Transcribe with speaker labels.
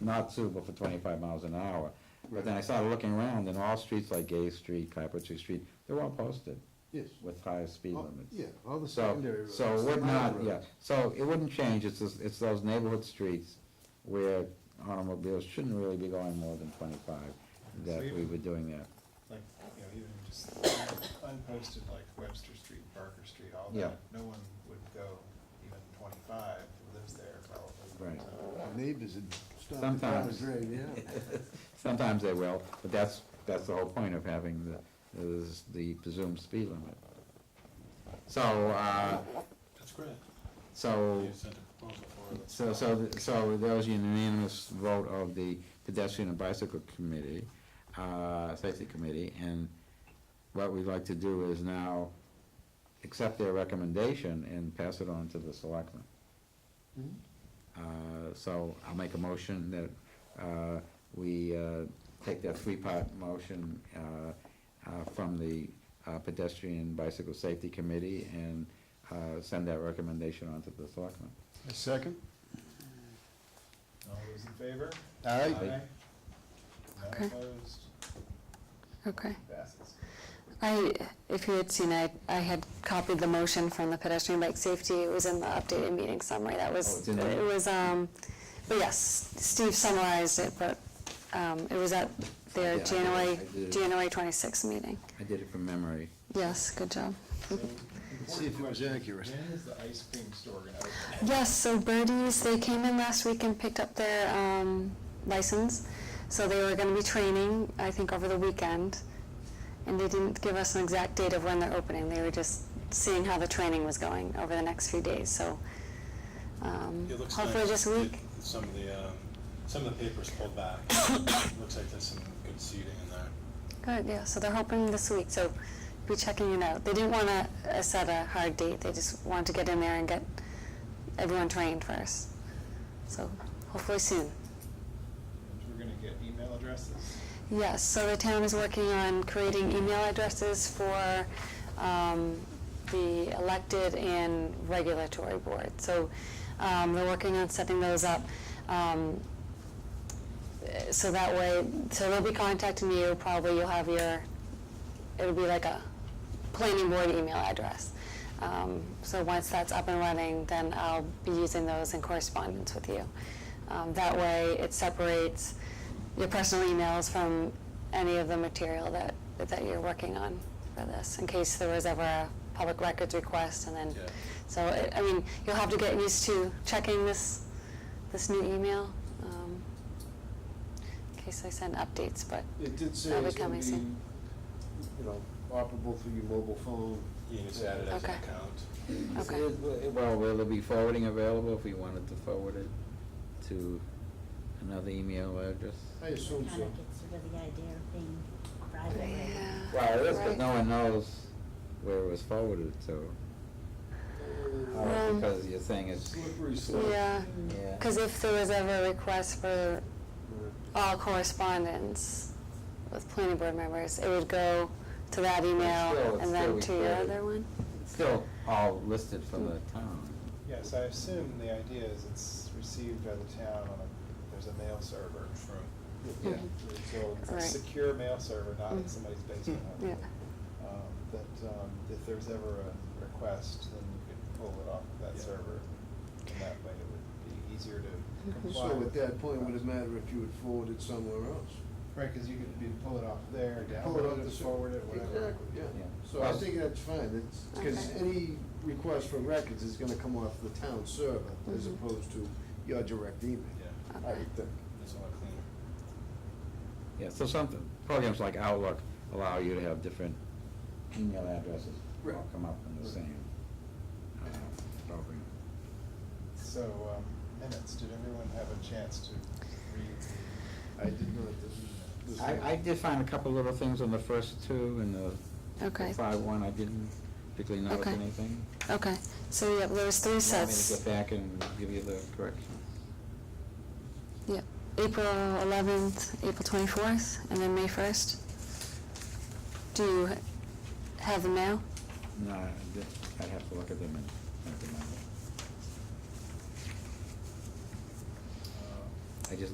Speaker 1: not suitable for twenty-five miles an hour. But then I started looking around, and all streets like Gay Street, Carpentry Street, they're all posted
Speaker 2: Yes.
Speaker 1: with higher speed
Speaker 2: Oh,
Speaker 1: limits.
Speaker 2: Yeah, all the
Speaker 1: So,
Speaker 2: secondary roads.
Speaker 1: so it
Speaker 2: the
Speaker 1: would
Speaker 2: minor
Speaker 1: not, yeah,
Speaker 2: roads.
Speaker 1: so it wouldn't change, it's, just- it's those neighborhood streets where automobiles shouldn't really be going more than twenty-five, that
Speaker 3: So
Speaker 1: we
Speaker 3: you-
Speaker 1: were doing that.
Speaker 3: like, you know, even just unposted like Webster Street, Barker Street, all
Speaker 1: Yeah.
Speaker 3: that, no one would go even twenty-five who lives there probably.
Speaker 1: Right.
Speaker 3: So,
Speaker 2: Our Neighbors and stuff.
Speaker 1: Sometimes.
Speaker 2: Yeah.
Speaker 1: Sometimes they will, but that's, that's the whole point of having the, is the presumed speed limit. So, uh,
Speaker 3: That's great.
Speaker 1: so,
Speaker 3: You sent a proposal for it.
Speaker 1: so, so, th- so there was unanimous vote of the pedestrian and bicycle committee, uh, safety committee, and what we'd like to do is now accept their recommendation and pass it on to the selectmen.
Speaker 2: Mhm.
Speaker 1: Uh, So I'll make a motion that uh, we uh, take that three-part motion uh, uh, from the uh, Pedestrian Bicycle Safety Committee and uh, send that recommendation on to the selectmen.
Speaker 2: second?
Speaker 3: All those in favor?
Speaker 2: Aye.
Speaker 3: None
Speaker 4: Okay.
Speaker 3: opposed,
Speaker 4: Okay.
Speaker 3: passes.
Speaker 4: I, if you had seen, I, I had copied the motion from the pedestrian bike safety. It was in the updated meeting summary. That
Speaker 1: Oh,
Speaker 4: was,
Speaker 1: it's in there?
Speaker 4: it was, um, but yes, Steve summarized it, but, um, it was at
Speaker 1: Yeah, I
Speaker 4: their
Speaker 1: did it.
Speaker 4: January,
Speaker 1: I did it.
Speaker 4: January twenty-sixth meeting.
Speaker 1: I did it from memory.
Speaker 4: Yes, good job.
Speaker 3: So,
Speaker 2: See if it was accurate.
Speaker 3: When is the ice cream store gonna open?
Speaker 4: Yes, so Birdies, they came in last week and picked up their um, license. So they were going to be training, I think, over the weekend. And they didn't give us an exact date of when they're opening. They were just seeing how the training was going over the next few days. So um,
Speaker 5: It looks
Speaker 4: hopefully
Speaker 5: like
Speaker 4: this week.
Speaker 5: it- Some of the, um, some of the papers pulled back. Looks like there's some good seating in there.
Speaker 4: Good, yeah. So they're hoping this week. So be checking it out. They didn't want to uh, set a hard date. They just wanted to get in there and get everyone trained first. So hopefully soon.
Speaker 3: We're gonna get email addresses.
Speaker 4: Yes, so the town is working on creating email addresses for um, the elected and regulatory board. So um, they're working on setting those up. um, eh, So that way, so they'll be contacting you, probably you'll have your, it'll be like a planning board email address. Um, So once that's up and running, then I'll be using those in correspondence with you. Um, That way, it separates your personal emails from any of the material that, that you're working on for this, in case there was ever a public records request, and then,
Speaker 5: Yeah.
Speaker 4: so, it- I mean, you'll have to get used to checking this, this new email, um, in case I send updates, but
Speaker 2: It did say
Speaker 4: That'll
Speaker 2: it's
Speaker 4: be
Speaker 2: gonna
Speaker 4: coming
Speaker 2: be,
Speaker 4: soon.
Speaker 2: you know, operable through your mobile phone.
Speaker 5: You can just add it as an
Speaker 4: Okay.
Speaker 5: account.
Speaker 4: Okay.
Speaker 1: uh, Well, will there be forwarding available if we wanted to forward it to another email address?
Speaker 2: I assume
Speaker 6: Kind
Speaker 2: so.
Speaker 6: of gets rid of the idea of being private. right?
Speaker 4: Yeah.
Speaker 1: Well, it is, but
Speaker 4: Right.
Speaker 1: no one knows where it was forwarded to,
Speaker 2: Uh,
Speaker 1: uh,
Speaker 4: Um,
Speaker 1: because you're saying it's,
Speaker 2: Slippery slope.
Speaker 4: Yeah,
Speaker 1: yeah.
Speaker 4: because if there was ever a request for
Speaker 2: Uh,
Speaker 4: all correspondence with planning board members, it would go to that email
Speaker 1: still-
Speaker 4: and then
Speaker 1: it's
Speaker 4: to
Speaker 1: still
Speaker 4: your
Speaker 1: recorded.
Speaker 4: other one? Hmm.
Speaker 1: It's Still all listed for the town.
Speaker 3: Yes, I assume the idea is it's received by the town on a, there's a mail server.
Speaker 1: Yeah.
Speaker 4: Mhm.
Speaker 3: So it's a
Speaker 4: Right.
Speaker 3: secure mail server, not in
Speaker 4: Mm.
Speaker 3: somebody's basement.
Speaker 4: Yeah,
Speaker 3: Um, That um, if there's ever a request, then you could pull it off of that
Speaker 5: Yeah.
Speaker 3: server. And that way it would be easier to
Speaker 4: Mhm.
Speaker 3: comply.
Speaker 2: So
Speaker 3: with
Speaker 2: at that point,
Speaker 3: the
Speaker 2: would it
Speaker 3: request.
Speaker 2: matter if you would forward it somewhere else?
Speaker 3: Right, because you could be, pull it off there,
Speaker 2: Pull it off
Speaker 3: download
Speaker 2: the
Speaker 3: it, forward it, whatever.
Speaker 2: Exactly, yeah.
Speaker 1: Yeah.
Speaker 2: So I think that's fine, it's, because
Speaker 4: Okay.
Speaker 2: any request for records is gonna come off the town server as
Speaker 4: Mhm.
Speaker 2: opposed to your direct email.
Speaker 5: Yeah,
Speaker 2: I would think.
Speaker 5: it's a lot cleaner.
Speaker 1: Yeah, so some, programs like Outlook allow you to have different email addresses
Speaker 2: Right.
Speaker 1: all come up in the same uh, program.
Speaker 3: So um, minutes, did everyone have a chance to read?
Speaker 2: I did not, this is. this
Speaker 1: I, I did find a couple little things on the first two and the
Speaker 4: Okay.
Speaker 1: five one, I didn't particularly notice
Speaker 4: Okay.
Speaker 1: anything.
Speaker 4: okay, so yeah, there was three
Speaker 1: You
Speaker 4: sets.
Speaker 1: Want me to go back and give you the corrections?
Speaker 4: Yeah, April eleventh, April twenty-fourth, and then May first. Do you have them now?
Speaker 1: No, I did- I'd have to look at them and and remember.
Speaker 3: the, uh,
Speaker 1: I just